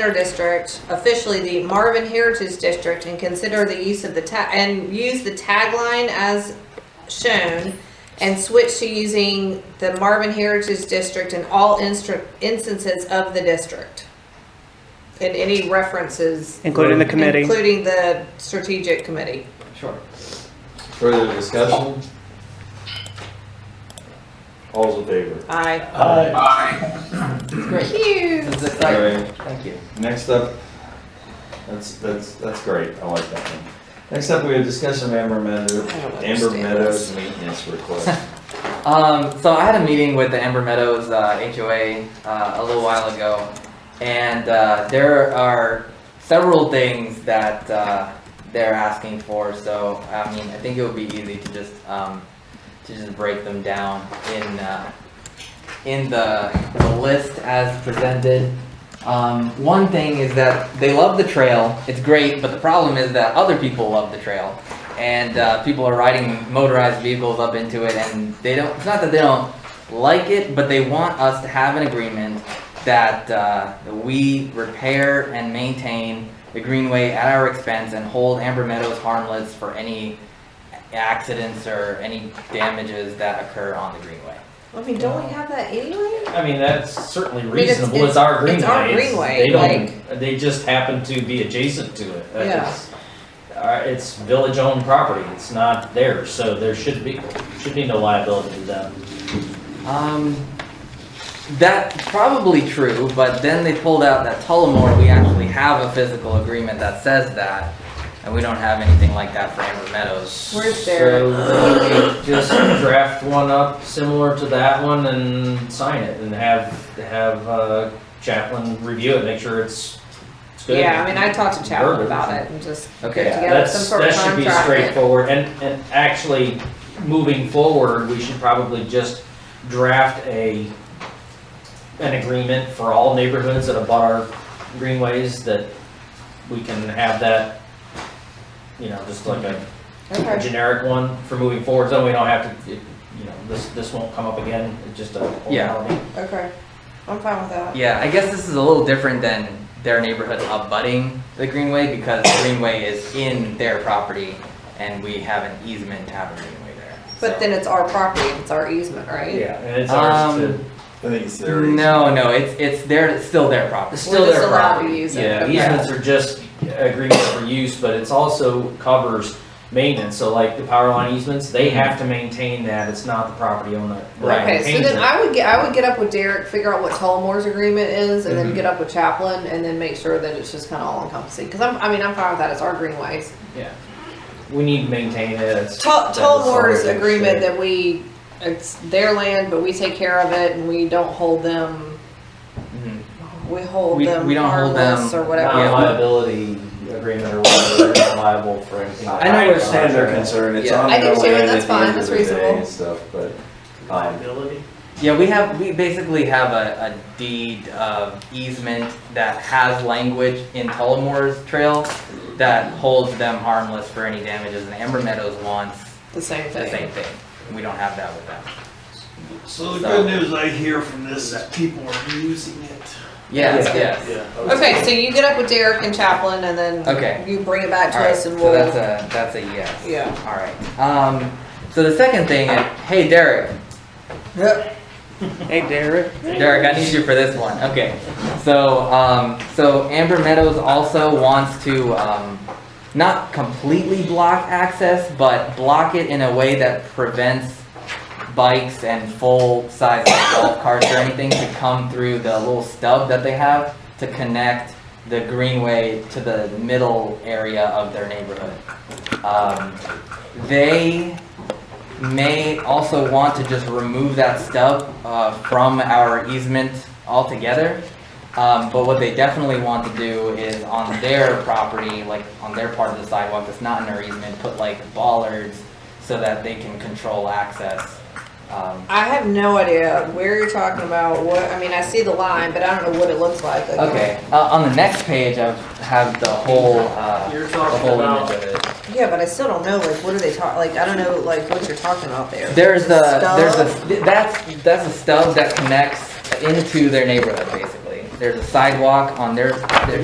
Center District, officially the Marvin Heritage District, and consider the use of the ta- and use the tagline as shown, and switch to using the Marvin Heritage District in all instru- instances of the district. And any references, including the committee. including the strategic committee. Sure. Further discussion? All's in favor? Aye. Great. Phew. This is All exciting. right, Thank you. next up, that's, that's, that's great, I like that one. Next up, we have discussion of Amber Meadows, I don't Amber understand Meadows this. maintenance request. Um, so I had a meeting with the Amber Meadows uh, HOA uh, a little while ago, and uh, there are several things that uh, they're asking for. So I mean, I think it would be easy to just um, to just break them down in uh, in the, the list as presented. Um, one thing is that they love the trail. It's great, but the problem is that other people love the trail. and uh, people are riding motorized vehicles up into it, and they don't. It's not that they don't like it, but they want us to have an agreement that uh, we repair and maintain the greenway at our expense and hold Amber Meadows harmless for any accidents or any damages that occur on the greenway. I mean, don't we have that anyway? I mean, that's certainly mean, it's- reasonable. It's our greenway. it's our It's- greenway, They don't, they just happen to be adjacent to it. Yeah. It's- uh, It's village-owned property. It's not theirs, so there should be, should be no liability to them. Um, that's probably true, but then they pulled out that Tullamore, we actually have a physical agreement that says that, and we don't have anything like that for Amber Meadows. Where's their- So we could just draft one up similar to that one and sign it and have, have uh, Chaplin review it, make sure it's, it's good. Yeah, I mean, I talked to Chadwick Burgers. about it and just put Okay. together some That's, sort of that should be contract. straightforward, and, and actually, moving forward, we should probably just draft a, an agreement for all neighborhoods that abut our greenways, that we can have that, you know, just like a a Okay. generic one for moving forward, so we don't have to, you know, this, this won't come up again, it's just a. Yeah. Okay, I'm fine with that. Yeah, I guess this is a little different than their neighborhood abutting the Greenway, because the Greenway is in their property, and we have an easement to have a Greenway there. But so- then it's our property, it's our easement, right? Yeah, and it's ours to. Um, I think it's there. No, no, it's, it's their, it's still their property. It's still We're just their allowed to property. use it, Yeah, okay. easements are just agreements for use, but it's also covers maintenance, so like the power line easements, they have to maintain that, it's not the property owner. that Right. Okay, so maintains then it. I would get, I would get up with Derek, figure out what Tullamore's agreement is, and then Mhm. get up with Chaplin, and then make sure that it's just kinda all encompassing, cause I'm, I mean, I'm fine with that, it's our greenways. Yeah, we need to maintain it. it's- that's the Tullamore's sort of agreement shit. that we, it's their land, but we take care of it, and we don't hold them, Mhm. we hold We- them we don't hold them- harmless or whatever. Yeah. Non-liability agreement or whatever, they're not liable for anything. I understand their concern, it's Yeah. on I do their too, land and at that's the fine, end of that's the day reasonable. and stuff, but, um, Liability? Yeah, we have, we basically have a, a deed of easement that has language in Tullamore's trail that holds them harmless for any damages, and Amber Meadows wants The same the same thing. thing. We don't have that with them. So the good news I hear from this is people are using it. Yes, Yeah. yes. Okay, so you get up with Derek and Chaplin, and then Okay. you bring it back to Alright, us, so and we'll. that's a, that's a yes. Yeah. Alright, um, so the second thing, is- hey Derek, Hey, Derek. Derek, I need you for this one. Okay. So, um, so Amber Meadows also wants to um, not completely block access, but block it in a way that prevents bikes and full-size golf carts or anything to come through the little stub that they have to connect the greenway to the middle area of their neighborhood. Um, they may also want to just remove that stub uh, from our easement altogether. Um, But what they definitely want to do is on their property, like on their part of the sidewalk that's not in their easement, put like bollards so that they can control access. Um, I have no idea where you're talking about. What I mean, I see the line, but I don't know what it looks like. Okay, uh, on the next page, I have the whole, uh, You're the talking whole about image of it. Yeah, but I still don't know. Like, what are they talking? Like, I don't know. Like, what you're talking about there. There's The a, there's stub? a, that's, that's a stub that connects into their neighborhood, basically. there's a sidewalk on their, their